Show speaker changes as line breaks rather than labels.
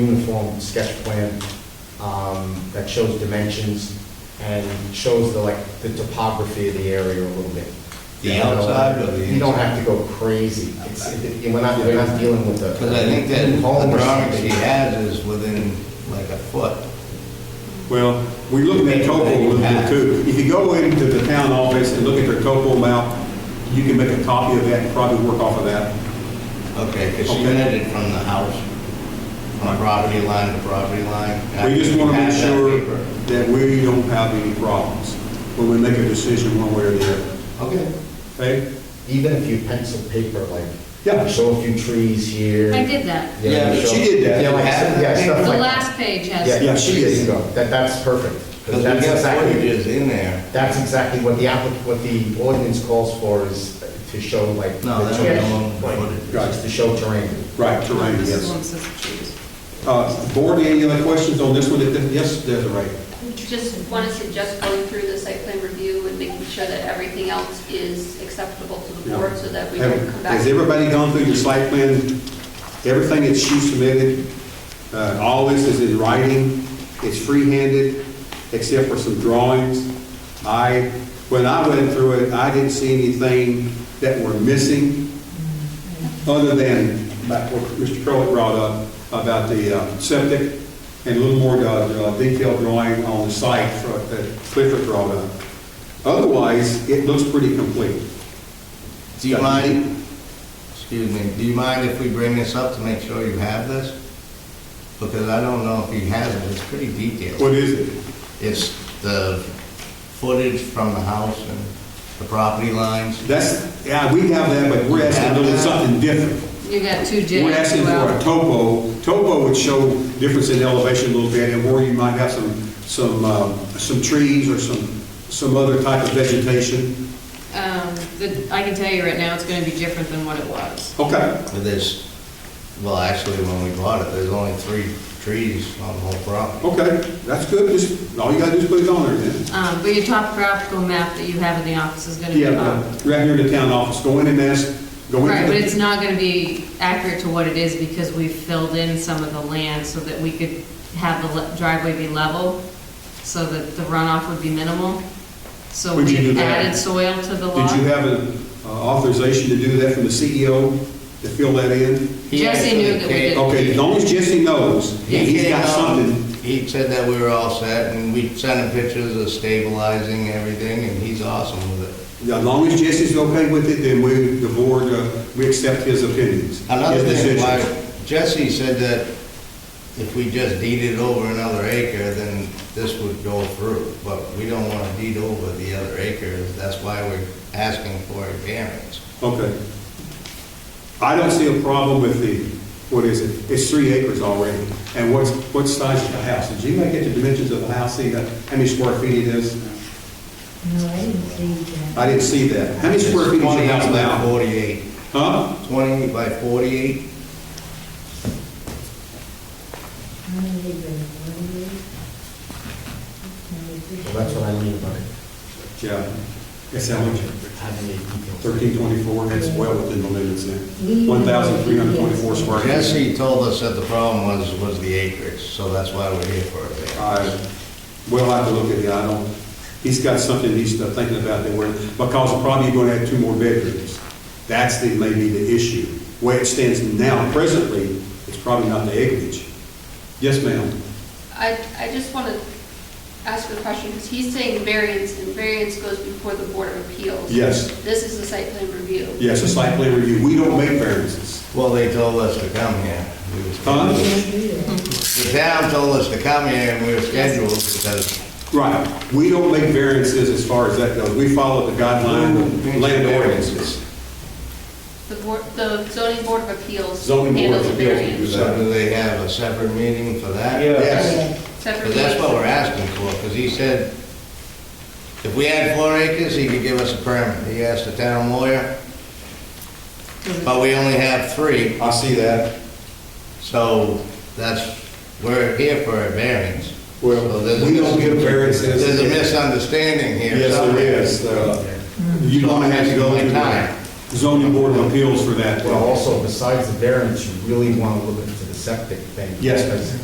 uniform sketch plan um, that shows dimensions and shows the, like, the topography of the area a little bit.
The outside or the
You don't have to go crazy. It's, it- you're not, you're not dealing with the.
Because I think that the
home or
drawing she
something.
has is within like a foot.
Well, we looked at topo a little bit too. If you go into the town office and look at their topo map, you can make a copy of that and probably work off of that.
Okay, because she
Okay.
meant it from the house, from property line to property line.
We just want to make
Have that
sure
paper.
that we don't have any problems when we make a decision one way or the other.
Okay.
Okay?
Even if you pencil paper, like,
Yeah.
show a few trees here.
I did that.
Yeah, but
show-
she did that.
Yeah, like, yeah,
The
stuff like that.
last page
Yeah,
has,
Yeah,
yeah,
she
she
is.
is, that, that's perfect.
Because we
That's
got
exactly-
footages in there.
That's exactly what the applic, what the ordinance calls for is to show like.
No,
the
that's
terrain.
not on the
Right.
footage.
Just to show terrain.
Right, terrain,
this is
yes.
one says choose.
Uh, Board, any other questions on this one? Yes, Desiree?
Just want to suggest going through the site plan review and making sure that everything else is acceptable to the board so that we don't come back.
Has everybody gone through your site plan? Everything that she submitted, uh, all this is in writing, it's free-handed, except for some drawings. I, when I went through it, I didn't see anything that were missing, other than that what Mr. Crowley brought up about the uh, septic, and a little more uh, detailed drawing on the site for- that Clifford brought up. Otherwise, it looks pretty complete.
Do you mind, excuse me, do you mind if we bring this up to make sure you have this? Because I don't know if he has it, it's pretty
What
detailed.
is it?
It's the footage from the house and the property lines.
That's, yeah, we have that, but we're asking a little something different.
You got two J's.
We're asking for a
well,
topo. Topo would show difference in elevation a little bit, and where you might have some, some, um, some trees or some, some other type of vegetation.
um, the- I can tell you right now, it's gonna be different than what it was.
Okay,
But there's, well, actually, when we bought it, there's only three trees on the whole property.
okay, that's good, just, all you gotta do is put it on there then.
Um, But your topographical map that you have in the office is gonna be
Yeah,
up.
uh, right here in the town office, go in and ask, go in.
Right, but it's not gonna be accurate to what it is because we filled in some of the land so that we could have the le- driveway be level, so that the runoff would be minimal. So
Would you do
we
that?
added soil to the lot.
Did you have an uh, authorization to do that from the CEO to fill that in?
He
Jesse knew that we
actually
did.
came-
Okay, as long as Jesse knows,
he
he's
came
got
out,
something.
um, He said that we were all set, and we sent him pictures of stabilizing everything, and he's awesome with it.
Yeah, As long as Jesse's okay with it, then we, the board, uh, we accept his opinions.
Another
his
thing,
decisions.
why Jesse said that if we just deeded over another acre, then this would go through, but we don't want to deed over the other acre, that's why we're asking for a variance.
Okay. I don't see a problem with the, what is it? It's three acres already. And what's, what size is the house? Did you make it the dimensions of the house, see that, how many square feet it is?
No, I didn't see that.
I didn't see that. How many square feet is your house
28 by
now?
48,
Huh?
28 by 48,
How many they bring? One of these?
Well, that's what I mean about it.
Yeah. That's how much?
Having the details.
Thirteen twenty-four, that's well within the limits then. One thousand three hundred twenty-four square feet.
Jesse told us that the problem was, was the acreage, so that's why we're here for a variance.
I, we'll have to look at it, I don't, he's got something he's thinking about that we're, because we're probably gonna have two more bedrooms. That's the, maybe the issue. Where it stands now, presently, it's probably not the acreage. Yes, ma'am?
I, I just want to ask a question, because he's saying variance, and variance goes before the Board of Appeals.
Yes.
This is the site plan review.
Yes, a site plan review, we don't make variances.
Well, they told us to come here. We was-
Huh?
Can't do that.
The town told us to come here, and we were scheduled because
Right, we don't make variances as far as that goes, we follow the guideline of land ordinances.
The board, the zoning Board of Appeals
Zoning Board
handles
of
the
Appeals will
variance.
do
So do they have a separate meeting for that?
Yes.
Separate
Because that's what
meeting.
we're asking for, because he said, if we had four acres, he could give us a permit. He asked the town lawyer, but we only have three,
I see that.
so that's, we're here for a variance.
Well,
So there's a
we don't
mis-
give variances.
There's a misunderstanding here.
Yes, there
somewhere.
is. Uh, You're going to have to go to the zoning board of appeals for that.
Well, also besides the variance, you really want to look into the septic thing.
Yes.
Because